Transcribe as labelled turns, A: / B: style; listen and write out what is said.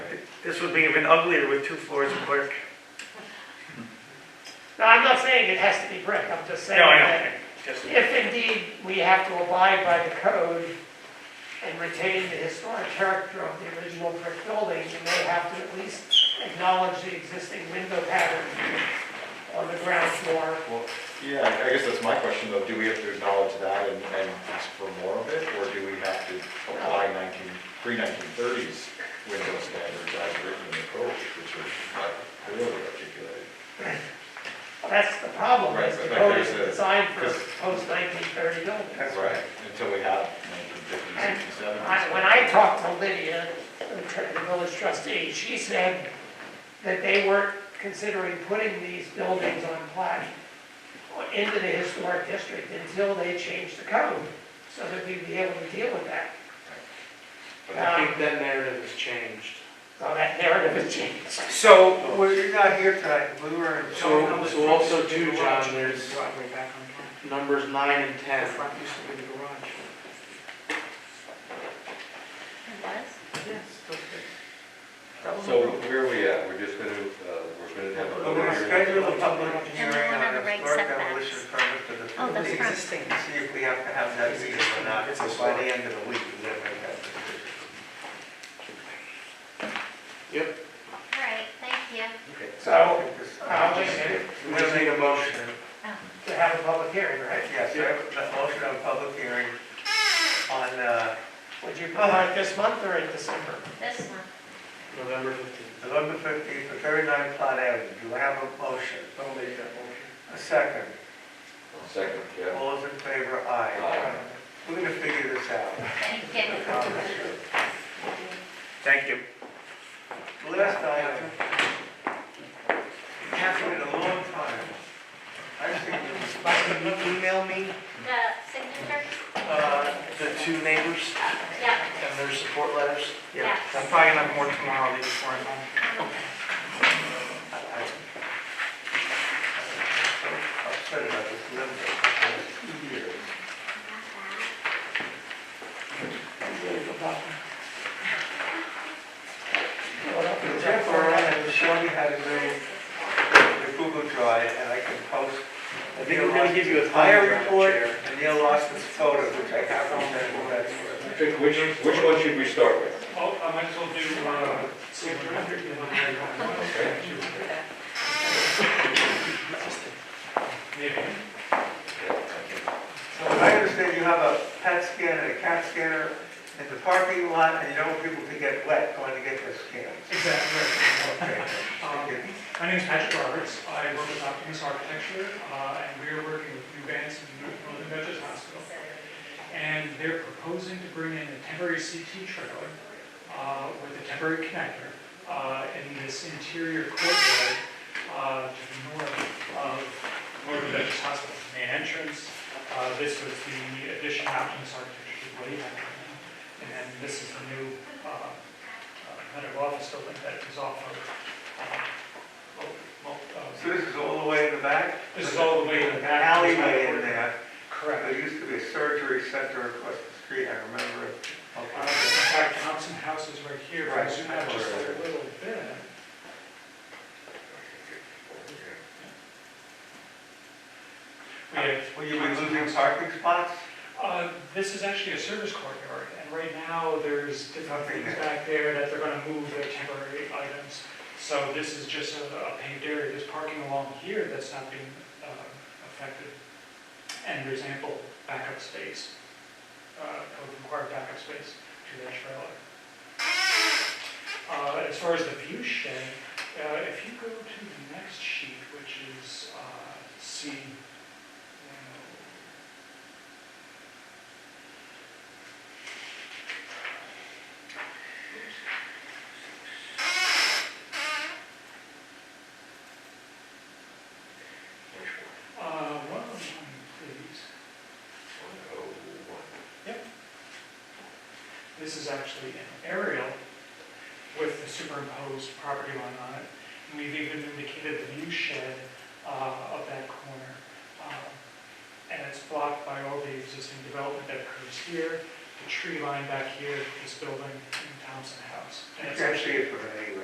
A: This would be even uglier with two floors of brick.
B: No, I'm not saying it has to be brick, I'm just saying
A: No, I
B: that
A: know, just,
B: if indeed we have to abide by the code and retain the historic character of the original brick building, you may have to at least acknowledge the existing window pattern on the ground floor.
C: Well, yeah, I- I guess that's my question though, do we have to acknowledge that and, and ask for more of it? Or do we have to apply nineteen, pre-nineteen thirties window standards as written in the code, which are not clearly articulated?
B: That's the problem,
C: Right,
B: is the
C: but
B: code
C: there's
B: is
C: a-
B: designed for
C: because-
B: post-1930 buildings.
A: That's
C: Right, until we have nineteen fifties,
B: And
C: sixties, seventies.
B: I- When I talked to Lydia, the tr- the village trustee, she said that they weren't considering putting these buildings on plat into the historic district until they changed the code, so that we'd be able to deal with that.
C: But
B: Uh,
D: I think that narrative has changed.
B: So that narrative has changed.
E: So, we're not here tonight, we were in.
D: So, so also too, John, there's
E: Driveway back on
D: numbers nine and
E: The
D: ten.
E: front used to be the garage.
F: Oh,
E: Yes. That was
G: So
E: a-
G: where are we at? We're just gonna, uh, we're gonna have a
E: We're gonna
G: public hearing.
E: schedule a public
F: And we
E: hearing
F: won't
E: on
F: have
E: a
F: the right
E: historic
F: setbacks.
E: demolition permit for the.
F: Oh,
E: for
F: that's
E: the
F: right.
E: existing, See if we have to have that meeting or not, so by the end of the week, we gotta make that decision.
F: All right, thank you.
B: So,
E: Because-
B: I'll make it
E: We just need a motion,
B: to have a public hearing, right?
E: yes, we have a motion on public hearing on, uh,
B: Would you provide this month or in December?
F: This one.
D: November fifteenth.
E: November fifteenth, for thirty-nine Plot Avenue, do I have a motion?
D: I'll make that motion.
E: A second,
G: Second, yeah.
E: all those in favor, aye.
C: Uh,
G: Aye.
E: We're gonna figure this out.
F: Thank you.
E: I promise you.
A: thank you.
E: Last item. Happened in a long time. I've seen this,
D: Can you email me,
F: The signature?
D: uh, the two neighbors
F: Yeah,
D: and their support letters?
F: yeah.
E: I'm probably gonna have more tomorrow, these before I'm home. Upset about this limbo. Jeff Moran and Shawny had a new, the Google Drive, and I can post.
D: I think we're gonna give you a
E: Fire
D: time draft,
E: report,
D: Chair.
E: and Neil Lawson's photo, which I have on that, that's where.
G: Which, which one should we start with?
D: Oh, I might as well do, uh,
E: I understand you have a PET scanner and a CAT scanner in the parking lot, and you don't want people to get wet going to get their scans. Exactly.
H: Um, My name is Patrick Roberts. I work with Optimus Architecture, uh, and we are working with New Vance and New- Northern Dutchess Hospital. And they're proposing to bring in a temporary CT trailer uh, with a temporary connector uh, in this interior courtyard uh, to the north of Northern Dutchess Hospital, main entrance. Uh, This was the addition Optimus Architecture did way back when. And then this is the new uh, uh, kind of office building that is off of um, Oh, well,
E: So
H: uh,
E: this is all the way in the back?
H: This is all the way in the
E: An
H: back.
E: Alleyway in there.
H: Correct.
E: There used to be a surgery center across the street, I remember it.
H: Uh, In fact, Thompson House is right here, if I
E: Right.
H: zoom out just a little bit. We have,
E: Will you be losing parking spots?
H: uh, this is actually a service courtyard, and right now, there's different
E: Nothing
H: things
E: there.
H: back there that they're gonna move their temporary items. So this is just a a paved area, there's parking along here that's not being uh, affected, and there's ample backup space, uh, code required backup space to that trailer. Uh, As far as the view shed, uh, if you go to the next sheet, which is uh, C, you know, Uh, one of them, please.
C: oh
H: This is actually an aerial with the superimposed property line on it. And we've even indicated the view shed uh, of that corner. Um, And it's blocked by all the existing development that occurs here, the tree line back here, this building, and Thompson House. And
E: You
H: it's
E: can't
H: actually
E: see it from there.